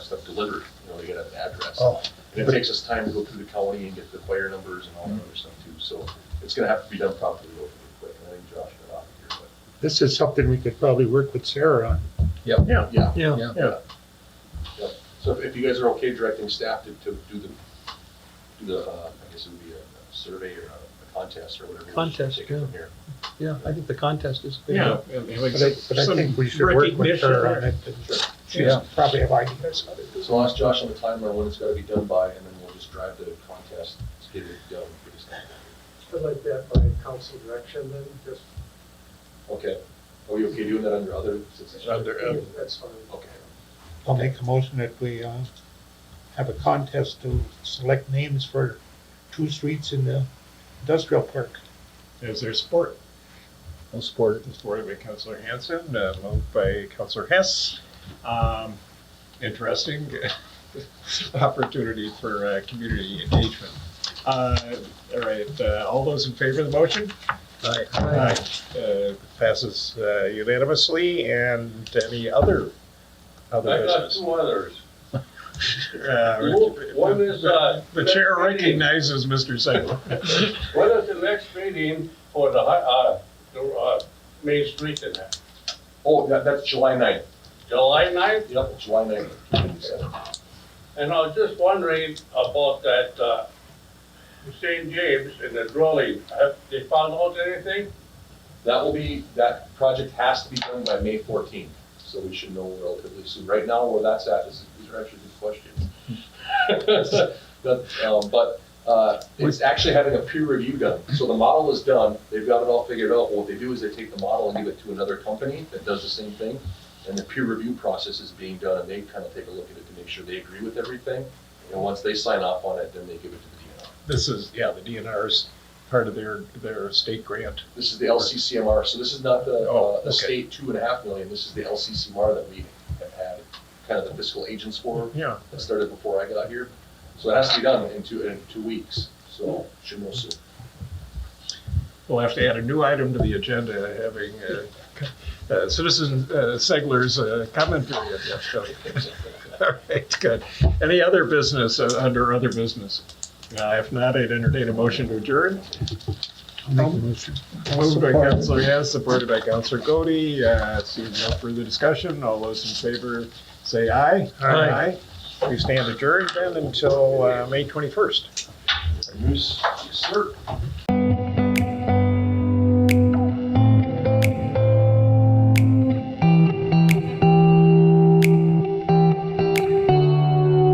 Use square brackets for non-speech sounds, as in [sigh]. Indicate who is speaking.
Speaker 1: stuff delivered, you know, they gotta have an address.
Speaker 2: Oh,
Speaker 1: And it takes us time to go through the county and get the fire numbers and all that other stuff too, so it's gonna have to be done properly real quick, I think Josh got off here,
Speaker 2: this is something we could probably work with Sarah on.
Speaker 1: but. Yeah. Yeah,
Speaker 2: Yeah.
Speaker 3: Yeah.
Speaker 1: yeah. Yeah. So if- if you guys are okay directing staff to, to do the, do the, uh, I guess it would be a a survey or a contest or whatever. we should
Speaker 3: Contest,
Speaker 1: take it from here.
Speaker 3: Yeah, I think the contest is. good.
Speaker 4: Yeah.
Speaker 2: But I, but I think we should work with her on it. and She's
Speaker 3: Yeah.
Speaker 2: probably have ideas on it.
Speaker 1: So I'll ask Josh on the timeline when it's gotta be done by, and then we'll just drive the contest to get it done. for this time.
Speaker 5: I'd like that by council direction then, just,
Speaker 1: Okay, are we okay doing that under other? since it's-
Speaker 4: Under- uh,
Speaker 5: that's fine.
Speaker 1: Okay.
Speaker 2: I'll make a motion that we, uh, have a contest to select names for two streets in the industrial park.
Speaker 4: Is there support?
Speaker 3: I'll support it.
Speaker 4: Supported by Counselor Hanson, uh, moved by Counselor Hess. Um, Interesting [laughs] opportunity for uh, community engagement. Uh, All right, uh, all those in favor of the motion?
Speaker 3: Aye.
Speaker 4: Aye. Uh, Passes uh, unanimously, and any other, other
Speaker 6: I've got
Speaker 4: business?
Speaker 6: two others.
Speaker 4: [laughs] Uh,
Speaker 6: One is, uh,
Speaker 4: The chair recognizes Mr.
Speaker 6: [laughs]
Speaker 4: Segler.
Speaker 6: When is the next meeting for the, hi- uh, the, uh, Main Street in that?
Speaker 1: Oh, that, that's July ninth.
Speaker 6: July ninth?
Speaker 1: Yep, July ninth.
Speaker 6: And I was just wondering about that, uh, St. James and the dwelling. Have they found out anything?
Speaker 1: That will be, that project has to be done by May fourteenth, so we should know relatively soon. Right now, where that's at is, these are actually good questions. But, um, but, uh, it's actually having a peer review done. So the model is done, they've got it all figured out. What they do is they take the model and give it to another company that does the same thing. And the peer review process is being done, and they kind of take a look at it to make sure they agree with everything. And once they sign off on it, then they give it to the DNR.
Speaker 4: This is, yeah, the DNR's part of their, their state grant.
Speaker 1: This is the LCCMR, so this is not the,
Speaker 4: Oh,
Speaker 1: uh,
Speaker 4: okay.
Speaker 1: the state two and a half million, this is the LCCMR that we have had, kind of the fiscal agents for,
Speaker 4: Yeah.
Speaker 1: that started before I got here. So it has to be done in two, in two weeks, so should know soon.
Speaker 4: We'll have to add a new item to the agenda, having uh, c- uh, Citizen uh, Segler's uh, comment period. Yeah, so- [laughs] All right, good. Any other business, uh, under other business? Uh, If not, I'd entertain a motion to adjourn.
Speaker 2: I'll make a motion.
Speaker 4: Moved by
Speaker 2: Support.
Speaker 4: Counselor Hess, supported by Counselor Cody. Uh, Seeing no further discussion, all those in favor say aye.
Speaker 2: Aye.
Speaker 4: Aye. We stand adjourned then until uh, May 21st.
Speaker 1: Yes, yes, sir.